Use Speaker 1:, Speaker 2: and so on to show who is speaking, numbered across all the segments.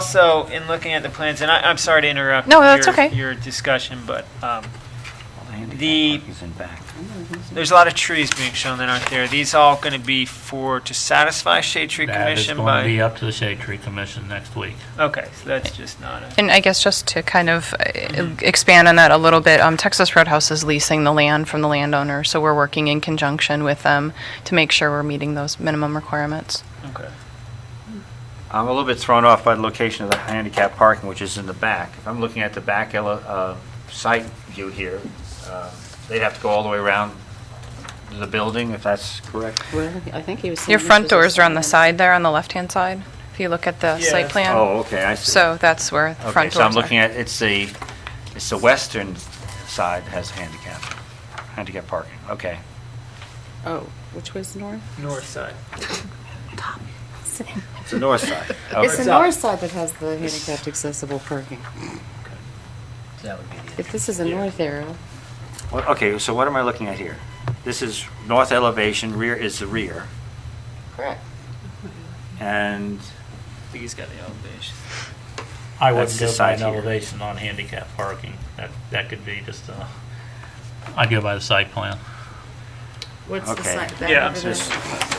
Speaker 1: also, in looking at the plans, and I, I'm sorry to interrupt.
Speaker 2: No, that's
Speaker 1: your-
Speaker 2: okay.
Speaker 1: Your discussion, but, um, The-
Speaker 3: The. He's in back.
Speaker 1: there's a lot of trees being shown that aren't there. These all going to be for, to satisfy shade tree
Speaker 4: That is
Speaker 1: commission
Speaker 4: going to
Speaker 1: by?
Speaker 4: be up to the Shade Tree Commission next week.
Speaker 1: Okay, so that's just not a,
Speaker 2: And I guess just to kind of uh, expand on that a little bit, um, Texas Roadhouse is leasing the land from the landowner, so we're working in conjunction with them to make sure we're meeting those minimum requirements.
Speaker 1: okay.
Speaker 3: I'm a little bit thrown off by the location of the handicap parking, which is in the back. If I'm looking at the back ele- uh, site view here, uh, they'd have to go all the way around the building, if that's correct.
Speaker 5: Well, I think he was. saying
Speaker 2: Your
Speaker 5: this
Speaker 2: front
Speaker 5: was a
Speaker 2: doors are on the
Speaker 5: side.
Speaker 2: side there, on the left-hand side, if you look at the site
Speaker 1: Yeah.
Speaker 2: plan.
Speaker 3: Oh, okay, I see.
Speaker 2: So that's where the
Speaker 3: Okay,
Speaker 2: front
Speaker 3: so I'm
Speaker 2: doors
Speaker 3: looking
Speaker 2: are.
Speaker 3: at, it's the, it's the western side has handicap, handicap parking, okay.
Speaker 5: Oh, which way's north?
Speaker 1: North side.
Speaker 3: It's the north side.
Speaker 5: It's the
Speaker 3: Okay.
Speaker 5: north side that has the handicapped accessible parking. If this is a north arrow,
Speaker 3: Well, Okay, so what am I looking at here? This is north elevation, rear is the rear,
Speaker 5: correct.
Speaker 3: and
Speaker 1: I think he's got the elevation.
Speaker 4: I
Speaker 3: That's
Speaker 4: wouldn't
Speaker 3: the
Speaker 4: go by
Speaker 3: side
Speaker 4: an
Speaker 3: here.
Speaker 4: elevation on handicap parking. That, that could be just a, I'd go by the site plan.
Speaker 5: What's the
Speaker 3: Okay.
Speaker 5: side? that
Speaker 1: Yeah,
Speaker 5: over
Speaker 1: so
Speaker 5: there?
Speaker 3: it's-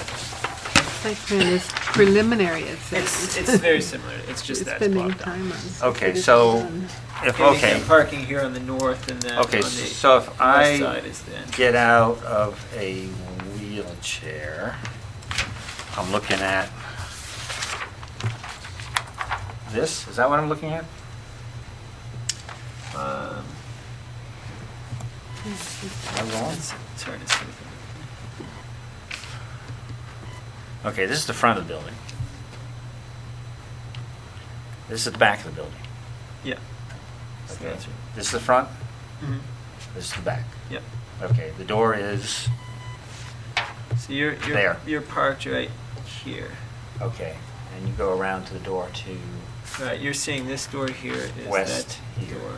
Speaker 6: Site plan is preliminary, it
Speaker 1: It's,
Speaker 6: says.
Speaker 1: it's very similar, it's just
Speaker 6: It's
Speaker 1: that's
Speaker 6: spending
Speaker 1: blocked off.
Speaker 6: time on.
Speaker 3: Okay,
Speaker 6: but it's um,
Speaker 3: so-
Speaker 6: done.
Speaker 3: if,
Speaker 1: Handicap
Speaker 3: okay,
Speaker 1: Parking here on the north and then on the
Speaker 3: okay,
Speaker 1: north
Speaker 3: so if I
Speaker 1: side is the entrance.
Speaker 3: get out of a wheelchair, I'm looking at this, is that what I'm looking at?
Speaker 1: Um,
Speaker 3: Am I wrong?
Speaker 1: let's turn it so we can-
Speaker 3: Okay, this is the front of the building. This is the back of the building.
Speaker 1: Yeah. So
Speaker 3: Okay,
Speaker 1: that's right.
Speaker 3: this is the front,
Speaker 1: Mhm.
Speaker 3: this is the back.
Speaker 1: Yep.
Speaker 3: Okay, the door is,
Speaker 1: So you're, you're,
Speaker 3: There.
Speaker 1: you're parked right here.
Speaker 3: okay, and you go around to the door to,
Speaker 1: Right, you're seeing this door here is
Speaker 3: West
Speaker 1: that
Speaker 3: here.
Speaker 1: door.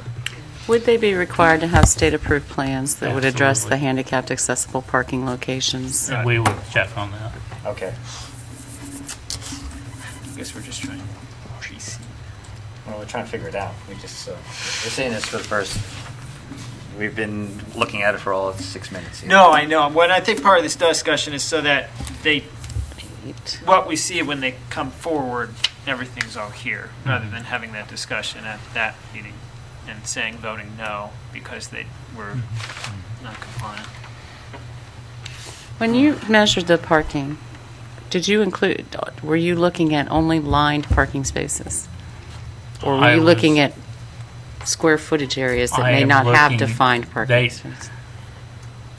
Speaker 5: Would they be required to have state-approved plans that would address the
Speaker 4: Absolutely.
Speaker 5: handicapped accessible parking locations?
Speaker 4: And we would check on that.
Speaker 3: okay.
Speaker 1: I guess we're just trying to pre-see.
Speaker 3: Well, we're trying to figure it out. We just, uh, we're seeing this for the first, we've been looking at it for all of six minutes. here.
Speaker 1: No, I know. What I think part of this discussion is so that they,
Speaker 5: Eight.
Speaker 1: what we see when they come forward, everything's all here, rather than having that discussion at that meeting and saying, voting no, because they were not compliant.
Speaker 5: When you measured the parking, did you include, were you looking at only lined parking spaces? Or were
Speaker 4: I
Speaker 5: you looking
Speaker 4: was-
Speaker 5: at square footage areas that
Speaker 4: I
Speaker 5: may
Speaker 4: am
Speaker 5: not have
Speaker 4: looking-
Speaker 5: defined
Speaker 4: they-
Speaker 5: parking spaces?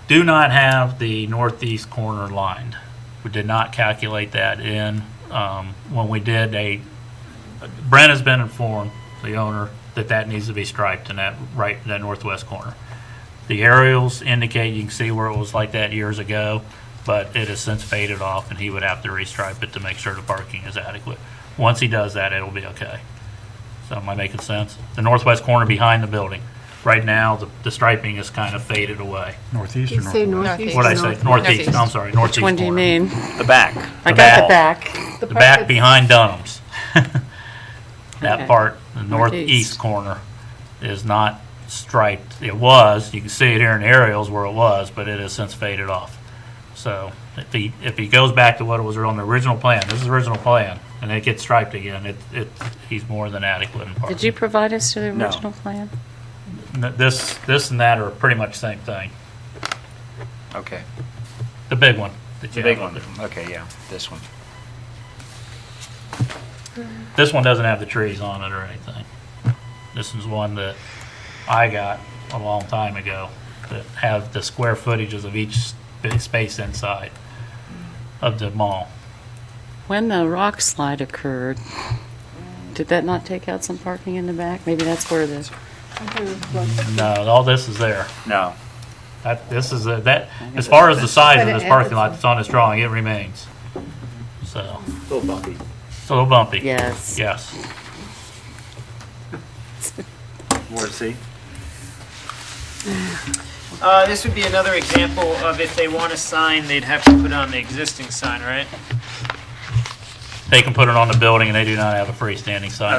Speaker 4: Do not have the northeast corner lined. We did not calculate that in. Um, When we did, a, Brent has been informed, the owner, that that needs to be striped in that, right, in that northwest corner. The aerials indicate, you can see where it was like that years ago, but it has since faded off, and he would have to restripe it to make sure the parking is adequate. Once he does that, it'll be okay. So am I making sense? The northwest corner behind the building. Right now, the the striping is kind of faded away.
Speaker 7: Northeast
Speaker 6: You
Speaker 7: or
Speaker 6: say
Speaker 7: northwest?
Speaker 6: northeast.
Speaker 4: What'd I
Speaker 6: or
Speaker 4: say?
Speaker 6: north-
Speaker 4: Northeast, I'm sorry, northeast
Speaker 5: Which one do you
Speaker 4: corner.
Speaker 5: mean?
Speaker 3: The back.
Speaker 5: I
Speaker 4: The
Speaker 5: got the back.
Speaker 4: The
Speaker 6: The part
Speaker 4: back
Speaker 6: that's-
Speaker 4: behind Dunham's.
Speaker 5: Okay.
Speaker 4: That part, the northeast
Speaker 5: Northeast.
Speaker 4: corner is not striped. It was, you can see it here in aerials where it was, but it has since faded off. So if he, if he goes back to what it was on the original plan, this is the original plan, and it gets striped again, it, it, he's more than adequate in
Speaker 5: Did
Speaker 4: parking.
Speaker 5: you provide us to the
Speaker 3: No.
Speaker 5: original plan?
Speaker 4: N- This, this and that are pretty much the same thing.
Speaker 3: Okay.
Speaker 4: The big one. that
Speaker 3: The
Speaker 4: you
Speaker 3: big
Speaker 4: have up
Speaker 3: one. Okay, yeah, this one.
Speaker 4: there. This one doesn't have the trees on it or anything. This is one that I got a long time ago that have the square footages of each sp- space inside of the mall.
Speaker 5: When the rock slide occurred, did that not take out some parking in the back? Maybe that's where the,
Speaker 6: I thought it was close.
Speaker 4: No, all this is there.
Speaker 3: No.
Speaker 4: That, this is, a- that, as far as the size of this parking lot that's on this drawing, it remains. So,
Speaker 3: Little bumpy.
Speaker 4: it's a little bumpy.
Speaker 5: yes.
Speaker 4: Yes.
Speaker 3: Ward C?
Speaker 1: Uh, this would be another example of if they want a sign, they'd have to put on the existing sign, right?
Speaker 4: They can put it on the building and they do not have a freestanding sign.